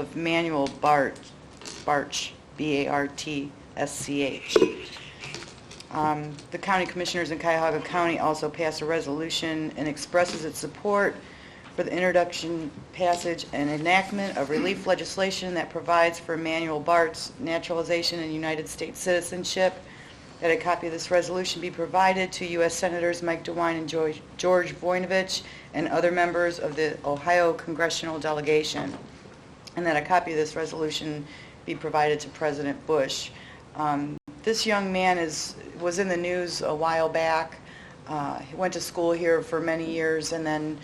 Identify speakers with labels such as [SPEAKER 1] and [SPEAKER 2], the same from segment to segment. [SPEAKER 1] of Manuel Bart, Bartsch, B-A-R-T-S-C-H. Um, The county commissioners in Cuyahoga County also passed a resolution and expresses its support for the introduction, passage, and enactment of relief legislation that provides for Manuel Bart's naturalization and United States citizenship. That a copy of this resolution be provided to U.S. Senators Mike DeWine and George George Voinovich and other members of the Ohio congressional delegation and that a copy of this resolution be provided to President Bush. Um, This young man is, was in the news a while back. Uh, He went to school here for many years, and then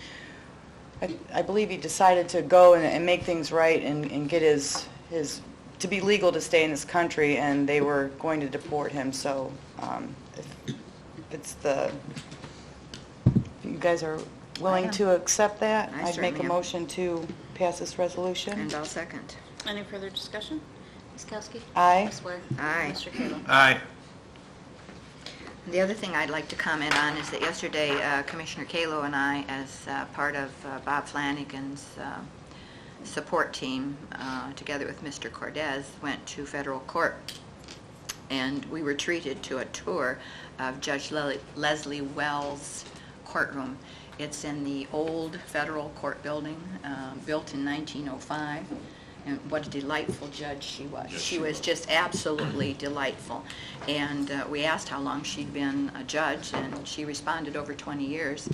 [SPEAKER 1] I I believe he decided to go and- and make things right and and get his, his, to be legal to stay in this country, and they were going to deport him, so um, if it's the, if you guys are willing
[SPEAKER 2] am.
[SPEAKER 1] to accept that?
[SPEAKER 2] I
[SPEAKER 1] would make
[SPEAKER 2] certainly
[SPEAKER 1] a
[SPEAKER 2] am.
[SPEAKER 1] motion to pass this resolution.
[SPEAKER 2] And I'll second.
[SPEAKER 3] Any further discussion? Ms. Kowski?
[SPEAKER 1] Aye.
[SPEAKER 3] Ms. Blair?
[SPEAKER 2] Aye.
[SPEAKER 3] Mr. Kayla?
[SPEAKER 4] Aye.
[SPEAKER 2] The other thing I'd like to comment on is that yesterday uh, Commissioner Kalo and I, as uh, part of uh, Bob Flanagan's uh, support team, uh, together with Mr. Cordez, went to federal court and we were treated to a tour of Judge Lele- Leslie Wells' courtroom. It's in the old federal court building, uh, built in 1905, and what a delightful judge she was. She was just absolutely delightful. And uh, we asked how long she'd been a judge, and she responded over 20 years,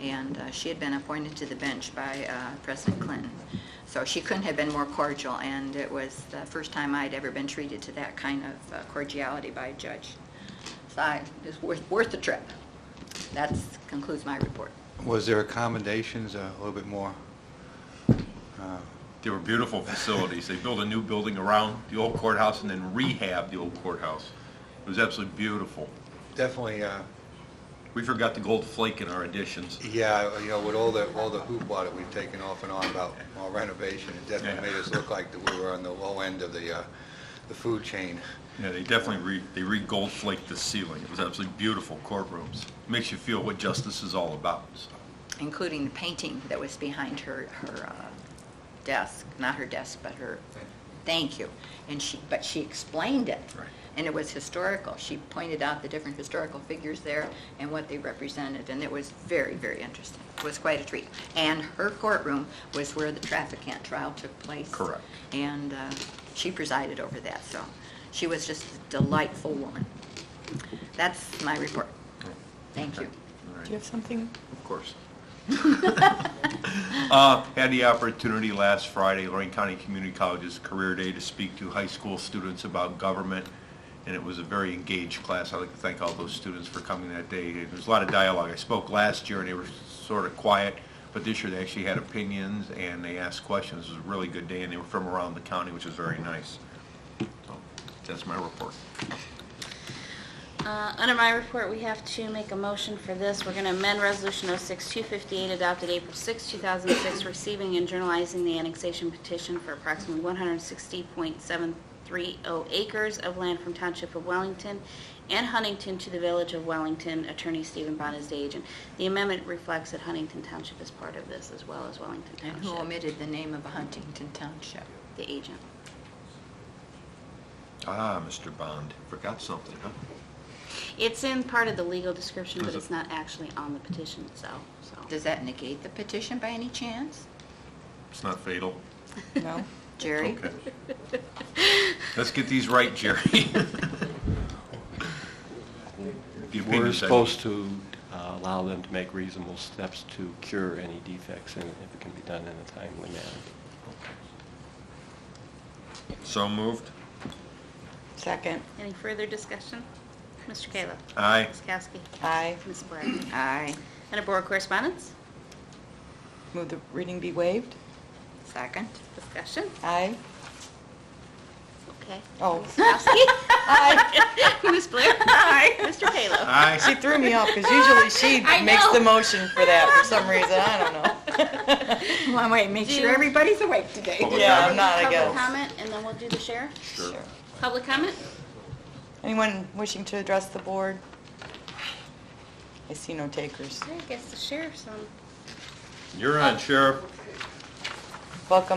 [SPEAKER 2] and uh, she had been appointed to the bench by uh, President Clinton. So she couldn't have been more cordial, and it was the first time I'd ever been treated to that kind of uh, cordiality by a judge. So I, it's worth, worth the trip. That concludes my report.
[SPEAKER 5] Was there accommodations, uh, a little bit more? uh,
[SPEAKER 4] They were beautiful facilities. They built a new building around the old courthouse and then rehabbed the old courthouse. It was absolutely beautiful.
[SPEAKER 5] Definitely, uh,
[SPEAKER 4] We forgot the gold flake in our additions.
[SPEAKER 5] yeah, you know, with all the, all the hoopla that we've taken off and on about our renovation, it definitely
[SPEAKER 4] Yeah.
[SPEAKER 5] made us look like that we were on the low end of the, uh, the food chain.
[SPEAKER 4] Yeah, they definitely re, they re-gold flaked the ceiling. It was absolutely beautiful courtrooms. Makes you feel what justice is all about, so.
[SPEAKER 2] including the painting that was behind her, her uh, desk, not her desk, but her, thank you. And she, but she explained it.
[SPEAKER 4] Right.
[SPEAKER 2] And it was historical. She pointed out the different historical figures there and what they represented, and it was very, very interesting. It was quite a treat. And her courtroom was where the trafficant trial took place.
[SPEAKER 4] Correct.
[SPEAKER 2] And uh, she presided over that, so she was just a delightful woman. That's my report. Thank you.
[SPEAKER 4] All right.
[SPEAKER 1] Do you have something?
[SPEAKER 4] Of course. Uh, Had the opportunity last Friday, Lorraine County Community College's Career Day, to speak to high school students about government, and it was a very engaged class. I'd like to thank all those students for coming that day. There was a lot of dialogue. I spoke last year, and they were sort of quiet, but this year they actually had opinions, and they asked questions. It was a really good day, and they were from around the county, which was very nice. So, That's my report.
[SPEAKER 3] Uh, Under my report, we have to make a motion for this. We're going to amend Resolution 06258 adopted April 6, 2006, receiving and journalizing the annexation petition for approximately 160.730 acres of land from Township of Wellington and Huntington to the Village of Wellington. Attorney Stephen Bond is the agent. The amendment reflects that Huntington Township is part of this as well as Wellington
[SPEAKER 2] And who
[SPEAKER 3] Township.
[SPEAKER 2] omitted the name of a Huntington Township?
[SPEAKER 3] The agent.
[SPEAKER 4] Ah, Mr. Bond, forgot something, huh?
[SPEAKER 3] It's in part of the legal description, but
[SPEAKER 4] Is it-
[SPEAKER 3] it's not actually on the petition itself, so.
[SPEAKER 2] Does that negate the petition by any chance?
[SPEAKER 4] It's not fatal.
[SPEAKER 1] No?
[SPEAKER 2] Jerry?
[SPEAKER 4] Okay. Let's get these right, Jerry. The
[SPEAKER 6] We're
[SPEAKER 4] opinions, I mean.
[SPEAKER 6] supposed to uh, allow them to make reasonable steps to cure any defects, and if it can be done in a timely manner.
[SPEAKER 4] So moved.
[SPEAKER 1] Second.
[SPEAKER 3] Any further discussion? Mr. Kayla?
[SPEAKER 4] Aye.
[SPEAKER 3] Ms. Kowski?
[SPEAKER 1] Aye.
[SPEAKER 3] Ms. Blair?
[SPEAKER 2] Aye.
[SPEAKER 3] Under Board Correspondence?
[SPEAKER 1] Move the reading be waived.
[SPEAKER 2] Second?
[SPEAKER 3] Discussion?
[SPEAKER 1] Aye.
[SPEAKER 3] Okay.
[SPEAKER 1] Oh,
[SPEAKER 3] Ms. Kowski?
[SPEAKER 1] aye.
[SPEAKER 3] Ms. Blair? Aye. Mr. Kayla?
[SPEAKER 1] She
[SPEAKER 4] Aye.
[SPEAKER 1] threw me off because usually she
[SPEAKER 3] I
[SPEAKER 1] makes
[SPEAKER 3] know.
[SPEAKER 1] the motion for that for some reason. I don't know.
[SPEAKER 2] One way, make
[SPEAKER 3] sure
[SPEAKER 2] everybody's awake today.
[SPEAKER 4] Public
[SPEAKER 1] Yeah, I'm
[SPEAKER 4] comment?
[SPEAKER 1] not, I
[SPEAKER 3] Public
[SPEAKER 1] guess.
[SPEAKER 3] comment, and then we'll do the sheriff?
[SPEAKER 4] Sure.
[SPEAKER 3] Public comment?
[SPEAKER 1] Anyone wishing to address the board? I see no takers.
[SPEAKER 3] I guess the sheriff's on.
[SPEAKER 4] You're on, Sheriff.
[SPEAKER 1] Welcome